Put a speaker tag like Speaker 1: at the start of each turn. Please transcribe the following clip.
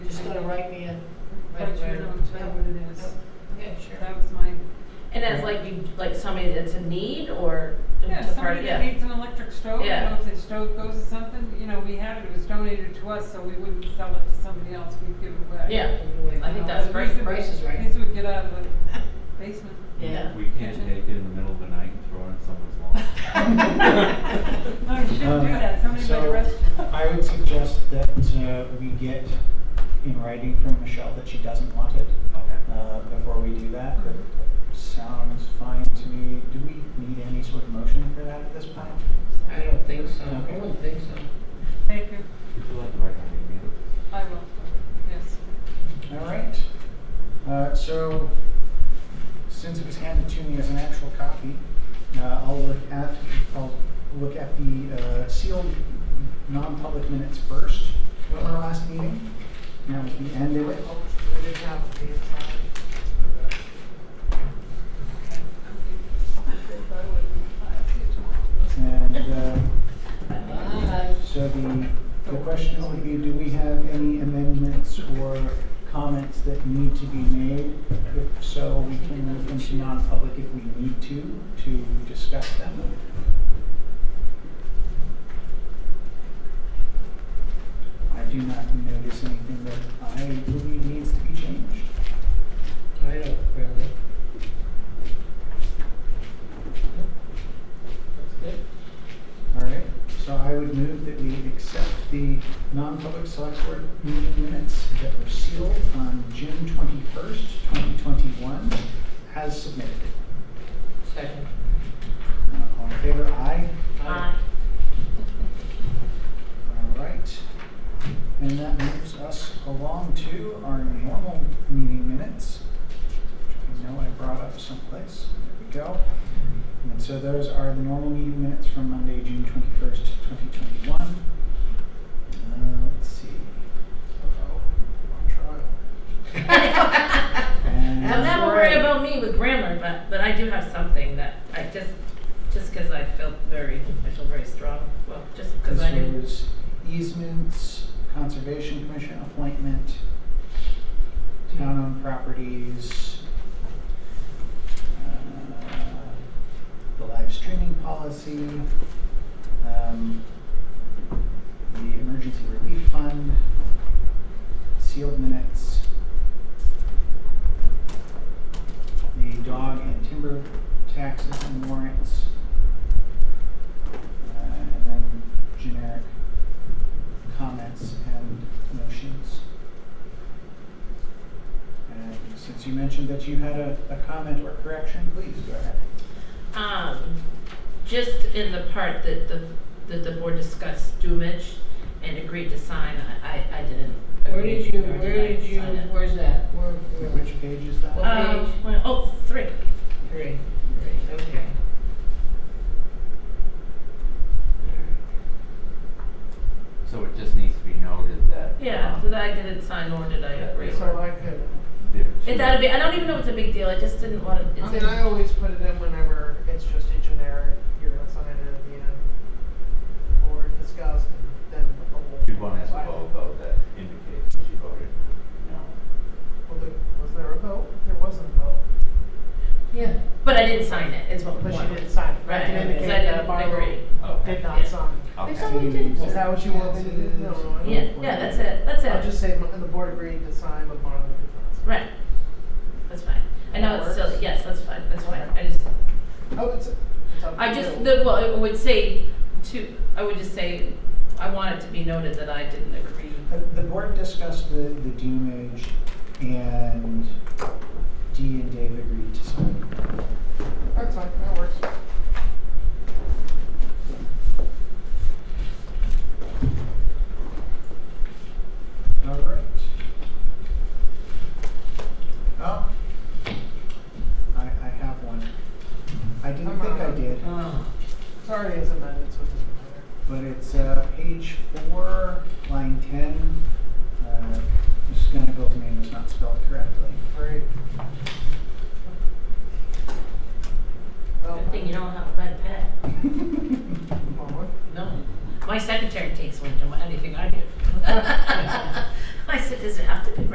Speaker 1: to write me a.
Speaker 2: But you don't know what it is.
Speaker 1: Okay, sure.
Speaker 2: That was my,
Speaker 3: And as like you, like somebody that's in need or to-
Speaker 2: yeah,
Speaker 3: to part
Speaker 2: somebody
Speaker 3: of,
Speaker 2: that
Speaker 3: yeah.
Speaker 2: needs an electric stove, you
Speaker 3: Yeah.
Speaker 2: know, if the stove goes to something, you know, we had it, it was donated to us, so we wouldn't sell it to somebody else, we'd give it away. Uh,
Speaker 3: Yeah.
Speaker 1: Anyway,
Speaker 3: I think
Speaker 1: no,
Speaker 3: that's
Speaker 1: the
Speaker 3: great.
Speaker 1: reason- Price is right.
Speaker 2: These would get out of the basement.
Speaker 1: Yeah.
Speaker 4: We can't
Speaker 3: Mm-hmm.
Speaker 4: take it in the middle of the night and throw it on someone's lawn.
Speaker 2: No, you shouldn't do that, somebody might
Speaker 5: So,
Speaker 2: arrest you.
Speaker 5: I would suggest that uh, we get in writing from Michelle that she doesn't want it
Speaker 4: Okay.
Speaker 5: uh, before we do that. That sounds fine to me. Do we need any sort of motion for that at this point?
Speaker 1: I don't think so. I
Speaker 5: Okay.
Speaker 1: don't think so.
Speaker 2: Thank you,
Speaker 4: Would you like to write my name in?
Speaker 2: I will, yes.
Speaker 5: All right. Uh, So, since it was handed to me as an actual copy, uh, I'll look at, I'll look at the uh, sealed non-public minutes first from our last meeting. Now, we can end it. And uh,
Speaker 1: Bye.
Speaker 5: so the, the question would be, do we have any amendments or comments that need to be made? If so, we can move into non-public if we need to, to discuss them. I do not notice anything that I believe needs to be changed.
Speaker 1: I don't really. That's good.
Speaker 5: All right, so I would move that we accept the non-public select board meeting minutes that were sealed on June twenty-first, twenty twenty-one, as submitted.
Speaker 1: Second.
Speaker 5: Uh, All in favor, aye?
Speaker 3: Aye.
Speaker 5: All right. And that moves us along to our normal meeting minutes. which I know I brought up someplace. There we go. And so those are the normal meeting minutes from Monday, June twenty-first, twenty twenty-one. Uh, let's see. Uh-oh, I'm on trial. And-
Speaker 3: I'll never worry about me with grammar, but, but I do have something that I just, just because I felt very, I feel very strong, well, just because I
Speaker 5: This
Speaker 3: didn't.
Speaker 5: was easements, conservation commission appointment, town-owned properties, uh, the live streaming policy, um, the emergency relief fund, sealed minutes, the dog and timber taxes and warrants, uh, and then generic comments and motions. And since you mentioned that you had a, a comment or correction, please go ahead.
Speaker 3: Um, just in the part that the, that the board discussed Dumage and agreed to sign, I, I, I didn't.
Speaker 1: Where
Speaker 3: agree,
Speaker 1: did you,
Speaker 3: nor
Speaker 1: where
Speaker 3: I
Speaker 1: did you,
Speaker 3: sign it.
Speaker 1: where's that? Where, where?
Speaker 5: Which page is that?
Speaker 1: What
Speaker 3: Um,
Speaker 1: page?
Speaker 3: well, oh, three.
Speaker 1: Three. Three, okay.
Speaker 4: So it just needs to be noted that.
Speaker 3: Yeah,
Speaker 6: Oh.
Speaker 4: um,
Speaker 3: that I didn't sign nor did I
Speaker 4: Yeah,
Speaker 3: agree.
Speaker 4: so
Speaker 1: I could.
Speaker 4: there are two-
Speaker 3: It, that'd be, I don't even know if it's a big deal, I just didn't want to.
Speaker 6: I mean, I always put it in whenever it's just a generic, you're gonna sign it at the end, or discussed, and then the whole.
Speaker 4: Should one has a vote though that indicates that she voted no.
Speaker 6: Well, there- Was there a vote? There wasn't a vote,
Speaker 1: Yeah.
Speaker 3: But I didn't sign it, is what.
Speaker 6: but she
Speaker 3: point.
Speaker 6: didn't sign it.
Speaker 3: Right,
Speaker 6: That can
Speaker 3: because
Speaker 6: indicate
Speaker 3: I
Speaker 6: that
Speaker 3: didn't
Speaker 6: Barbara
Speaker 3: agree.
Speaker 6: did
Speaker 4: Okay,
Speaker 3: Yeah.
Speaker 6: not sign.
Speaker 4: okay.
Speaker 1: somebody did.
Speaker 6: Is that what you want me to do? No, no, I don't
Speaker 3: Yeah, yeah, that's it, that's
Speaker 6: I'll just say,
Speaker 3: it.
Speaker 6: the board agreed to sign, but Marla did not sign.
Speaker 3: Right. That's fine. I know
Speaker 6: That
Speaker 3: it's silly,
Speaker 6: works?
Speaker 3: yes, that's fine, that's fine. I just,
Speaker 6: Oh, it's, it's up to
Speaker 3: I just,
Speaker 6: you.
Speaker 3: the, well, I would say to, I would just say, I want it to be noted that I didn't agree.
Speaker 5: Uh, The board discussed the, the demerge and Dee and Dave agreed to sign.
Speaker 6: That's fine, that works.
Speaker 5: All right. Oh, I, I have one. I didn't think I did,
Speaker 1: Oh.
Speaker 6: Sorry, it's amended, so it doesn't matter.
Speaker 5: but it's, uh, page four, line ten. Uh, Mrs. Gunnigal's name is not spelled correctly.
Speaker 6: Great. Well,
Speaker 3: Good thing you don't have a red pen.
Speaker 6: Marla?
Speaker 3: No. My secretary takes one to anything I do. My said, does it have to be